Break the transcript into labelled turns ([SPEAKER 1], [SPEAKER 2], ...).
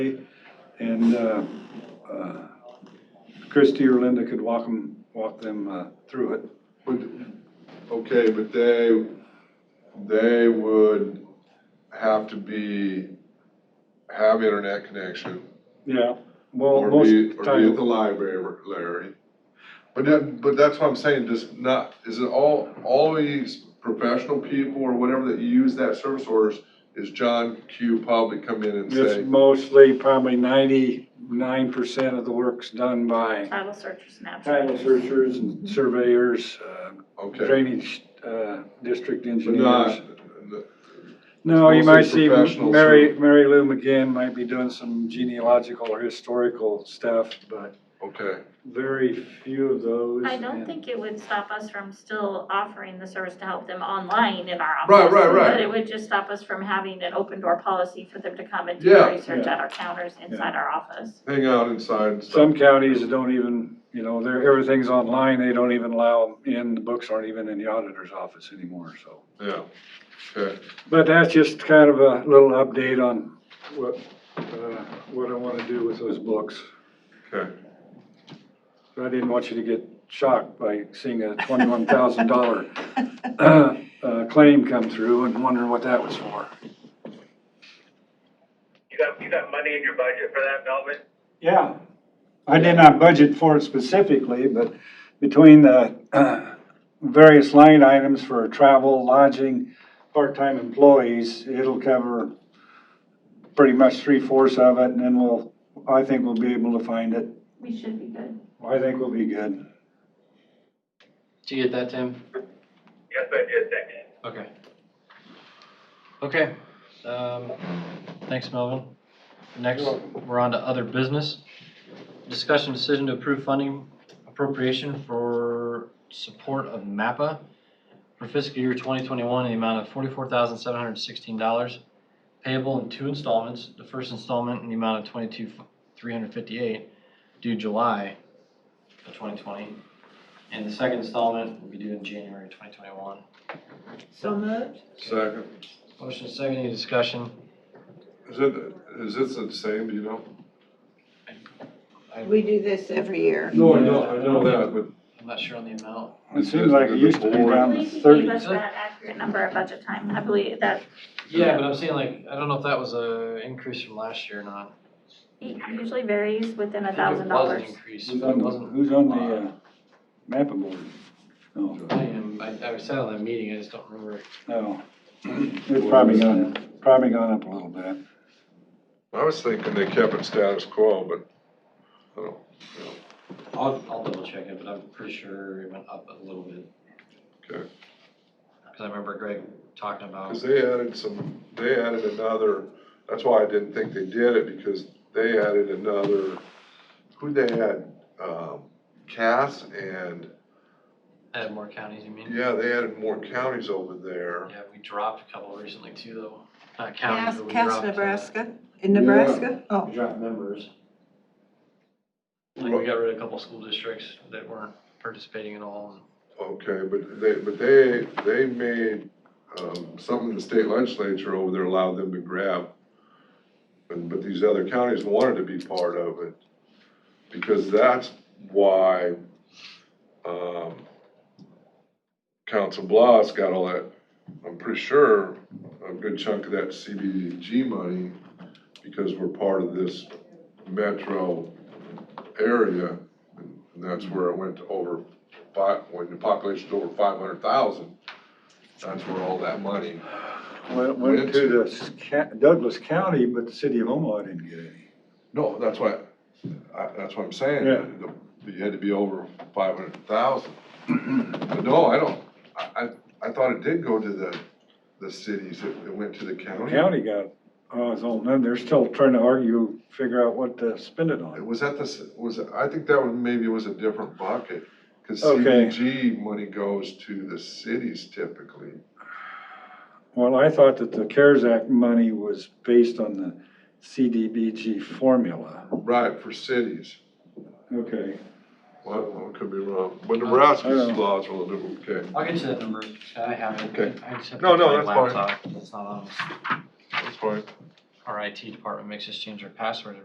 [SPEAKER 1] And uh, uh, Christie or Linda could walk them, walk them uh, through it.
[SPEAKER 2] But, okay, but they, they would have to be, have internet connection.
[SPEAKER 1] Yeah. Well,
[SPEAKER 2] Or
[SPEAKER 1] most
[SPEAKER 2] be, or be at
[SPEAKER 1] times,
[SPEAKER 2] the library, Larry. But that, but that's what I'm saying, just not, is it all, all these professional people or whatever that use that service orders, is John Q probably come in and
[SPEAKER 1] it's
[SPEAKER 2] say,
[SPEAKER 1] mostly probably ninety-nine percent of the work's done by
[SPEAKER 3] Title searchers and abstractors.
[SPEAKER 1] title searchers and surveyors, uh,
[SPEAKER 2] okay.
[SPEAKER 1] drainage uh, district
[SPEAKER 2] But
[SPEAKER 1] engineers.
[SPEAKER 2] not,
[SPEAKER 1] No, you
[SPEAKER 2] It's
[SPEAKER 1] might
[SPEAKER 2] mostly
[SPEAKER 1] see
[SPEAKER 2] professionals
[SPEAKER 1] Mary,
[SPEAKER 2] who-
[SPEAKER 1] Mary Lou McGinn might be doing some genealogical or historical stuff, but
[SPEAKER 2] okay,
[SPEAKER 1] very few of those.
[SPEAKER 3] I don't
[SPEAKER 1] and-
[SPEAKER 3] think it would stop us from still offering the service to help them online in our office.
[SPEAKER 2] Right, right, right.
[SPEAKER 3] But it would just stop us from having an open door policy for them to come and do
[SPEAKER 2] Yeah.
[SPEAKER 3] research
[SPEAKER 1] Yeah.
[SPEAKER 3] at our counters inside our office.
[SPEAKER 2] hang out inside and stuff.
[SPEAKER 1] Some counties don't even, you know, they're, everything's online, they don't even allow them in, the books aren't even in the auditor's office anymore, so.
[SPEAKER 2] Yeah, okay.
[SPEAKER 1] But that's just kind of a little update on what, uh, what I wanna do with those books.
[SPEAKER 2] Okay.
[SPEAKER 1] I didn't want you to get shocked by seeing a twenty-one thousand dollar, uh, uh, claim come through and wondering what that was for.
[SPEAKER 4] You got, you got money in your budget for that, Melvin?
[SPEAKER 1] Yeah. I did not budget for it specifically, but between the uh, various line items for travel, lodging, part-time employees, it'll cover pretty much three-fourths of it, and then we'll, I think we'll be able to find it.
[SPEAKER 3] We should be good.
[SPEAKER 1] I think we'll be good.
[SPEAKER 5] Did you get that, Tim?
[SPEAKER 4] Yes, I did, thanks.
[SPEAKER 5] Okay. Okay, um, thanks, Melvin. Next, we're on to other business. Discussion decision to approve funding appropriation for support of MAPPA for fiscal year twenty twenty-one in the amount of forty-four thousand seven hundred sixteen dollars payable in two installments, the first installment in the amount of twenty-two three hundred fifty-eight due July of twenty twenty, and the second installment will be due in January twenty twenty-one.
[SPEAKER 6] So moved?
[SPEAKER 2] Second,
[SPEAKER 5] Motion is second, any discussion?
[SPEAKER 2] is it, is this the same, do you know?
[SPEAKER 6] We do this every year.
[SPEAKER 2] No, I know, I know that, but
[SPEAKER 5] I'm not sure on the amount.
[SPEAKER 1] It seems like it used to be
[SPEAKER 3] I
[SPEAKER 1] down to
[SPEAKER 3] believe you gave
[SPEAKER 1] thirty.
[SPEAKER 3] us that accurate number at budget time. I believe that
[SPEAKER 5] Yeah, but I'm saying like, I don't know if that was a increase from last year or not.
[SPEAKER 3] it usually varies within
[SPEAKER 5] I
[SPEAKER 3] a
[SPEAKER 5] think it
[SPEAKER 3] thousand
[SPEAKER 5] was an
[SPEAKER 3] dollars.
[SPEAKER 5] Increase,
[SPEAKER 1] Who's
[SPEAKER 5] but
[SPEAKER 1] on
[SPEAKER 5] it
[SPEAKER 1] the,
[SPEAKER 5] wasn't.
[SPEAKER 1] who's on the uh, map board? No,
[SPEAKER 5] I am, I, I said on that meeting, I just don't remember.
[SPEAKER 1] Oh, no. It's probably gone, probably gone up a little bit.
[SPEAKER 2] I was thinking they kept it status quo, but, I don't,
[SPEAKER 5] I'll, I'll double check it, but I'm pretty sure it went up a little bit.
[SPEAKER 2] Okay.
[SPEAKER 5] Cause I remember Greg talking about,
[SPEAKER 2] because they added some, they added another, that's why I didn't think they did it, because they added another, who they had, um, Cass and,
[SPEAKER 5] add more counties, you mean?
[SPEAKER 2] yeah, they added more counties over there.
[SPEAKER 5] Yeah, we dropped a couple recently too, though. Not counties,
[SPEAKER 6] Cass,
[SPEAKER 5] but we dropped.
[SPEAKER 6] Cass,
[SPEAKER 5] uh,
[SPEAKER 6] Nebraska? In Nebraska? Oh,
[SPEAKER 5] We dropped members. Like, we got rid of a couple school districts that weren't participating at all.
[SPEAKER 2] Okay, but they, but they, they made, um, something in the state legislature over there allowed them to grab. But, but these other counties wanted to be part of it, because that's why, um, Council Bluffs got all that, I'm pretty sure, a good chunk of that CBDG money, because we're part of this metro area, and that's where it went to over five, when the population's over five hundred thousand, that's where all that money.
[SPEAKER 1] Went, went to the Sca- Douglas County, but the city of Omaha didn't get any.
[SPEAKER 2] No, that's why, I, that's what I'm saying.
[SPEAKER 1] Yeah.
[SPEAKER 2] The- You had to be over five hundred thousand. But no, I don't, I, I, I thought it did go to the, the cities, it, it went to the
[SPEAKER 1] The
[SPEAKER 2] county.
[SPEAKER 1] county got, oh, it's all, then they're still trying to argue, figure out what to spend it
[SPEAKER 2] It
[SPEAKER 1] on.
[SPEAKER 2] was at the, s- was, I think that was, maybe was a different bucket, cause
[SPEAKER 1] Okay.
[SPEAKER 2] CDG money goes to the cities typically.
[SPEAKER 1] Well, I thought that the CARES Act money was based on the CDBG formula.
[SPEAKER 2] Right, for cities.
[SPEAKER 1] Okay.
[SPEAKER 2] Well, I could be wrong, but Nebraska's
[SPEAKER 1] I know.
[SPEAKER 2] laws were a little, okay.
[SPEAKER 5] I'll get you that number. I have it.
[SPEAKER 2] Okay.
[SPEAKER 5] I just have to
[SPEAKER 2] No, no,
[SPEAKER 5] find
[SPEAKER 2] that's fine.
[SPEAKER 5] laptop. It's not on.
[SPEAKER 2] That's fine.
[SPEAKER 5] All our IT department makes us change our password